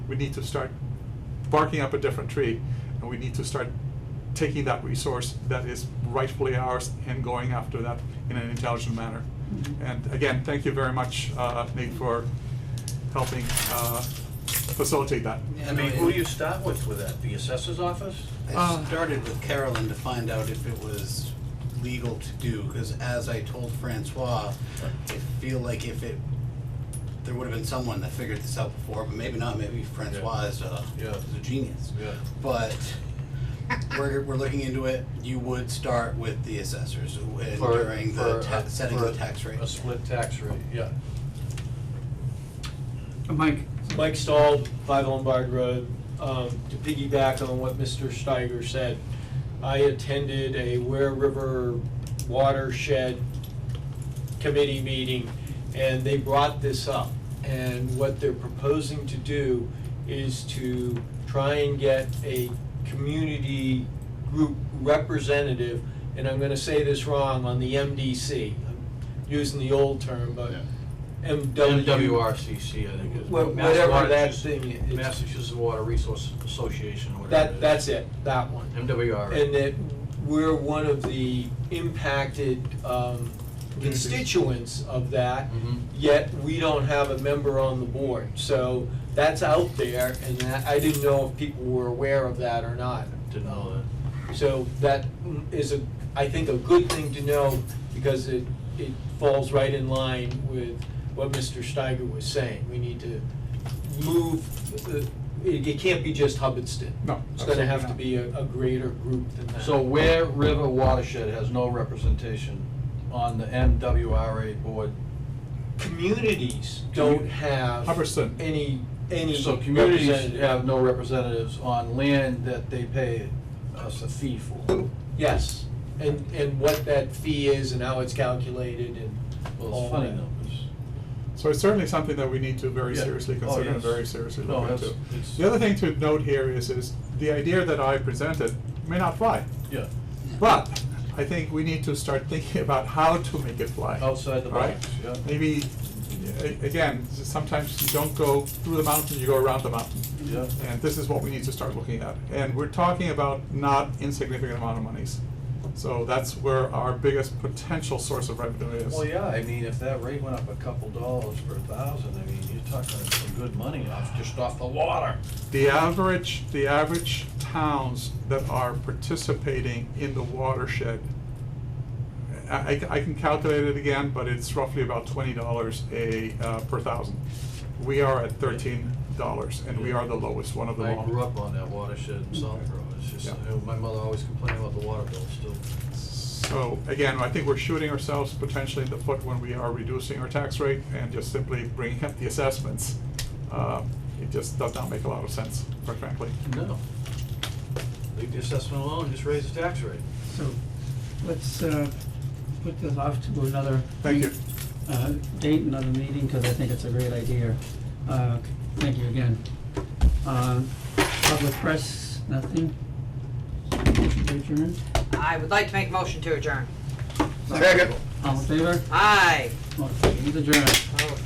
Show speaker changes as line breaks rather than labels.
we need to start barking up a different tree, and we need to start taking that resource that is rightfully ours and going after that in an intelligent manner.
Mhm.
And again, thank you very much, uh, Nate, for helping uh, facilitate that.
I mean, who do you start with with that? The assessor's office?
I
Uh,
started with Carolyn to find out if it was legal to do, because as I told Francois, I feel like if it, there would have been someone that figured this out before, but maybe not, maybe Francois is a,
Yeah.
is a genius.
Yeah.
But we're, we're looking into it, you would start with the assessors and
For-
during the,
for
ta-
a-
setting
for
the tax rate.
A split tax rate, yeah.
Mike,
Mike Stahl, Five Lombard Road. Um, To piggyback on what Mr. Steiger said, I attended a Ware River watershed committee meeting, and they brought this up. And what they're proposing to do is to try and get a community group representative, and I'm gonna say this wrong, on the MDC. I'm using the old term, but MW.
MWRCC, I think is.
Wha- whatever that
Massachusetts-
thing is.
Massachusetts Water Resource Association, whatever it
That,
is.
that's it, that one. And
MWR.
that we're one of the impacted um, constituents of that,
Mhm.
yet we don't have a member on the board. So that's out there, and that- I didn't know if people were aware of that or not.
Didn't know that.
So that is a, I think, a good thing to know, because it, it falls right in line with what Mr. Steiger was saying. We need to move, the- it, it can't be just Hubbardston.
No,
It's gonna have to
absolutely
be a, a greater group than that.
So Ware River Watershed has no representation on the MWRA board.
Communities don't have
Hubbardston.
any, any
So communities
representative.
have no representatives on land that they pay us a fee for.
Yes, and, and what that fee is and how it's calculated and
Well,
all
it's funny
that.
numbers.
So it's certainly something that we need to very
Yeah.
seriously
Oh,
consider and
yes.
very seriously
No,
look
that's-
into.
it's-
The other thing to note here is, is the idea that I presented may not fly,
Yeah,
but I think we need to start thinking about how to make it fly.
outside the
Right?
box, yeah.
Maybe, a- again, sometimes you don't go through the mountain, you go around the mountain.
Yeah.
And this is what we need to start looking at. And we're talking about not insignificant amount of monies. So that's where our biggest potential source of revenue is.
Well, yeah, I mean, if that rate went up a couple dollars per thousand, I mean, you're talking some good money off, just off the water.
The average, the average towns that are participating in the watershed, I, I- I can calculate it again, but it's roughly about twenty dollars a, uh, per thousand. We are at thirteen dollars, and we are the lowest one of them all.
I grew up on that watershed in Southborough, it's just,
Yeah.
you know, my mother always complained about the water bill still.
So, again, I think we're shooting ourselves potentially in the foot when we are reducing our tax rate and just simply bringing up the assessments. Uh, It just does not make a lot of sense, quite frankly.
No. Leave the assessment alone, just raise the tax rate.
so let's uh, put this off to another.
Thank you.
uh, Date, another meeting, because I think it's a great idea. Uh, Thank you again. Uh, Public press, nothing? Motion to adjourn?
I would like to make a motion to adjourn.
All in favor?
Aye.
Motion is adjourned.
Oh,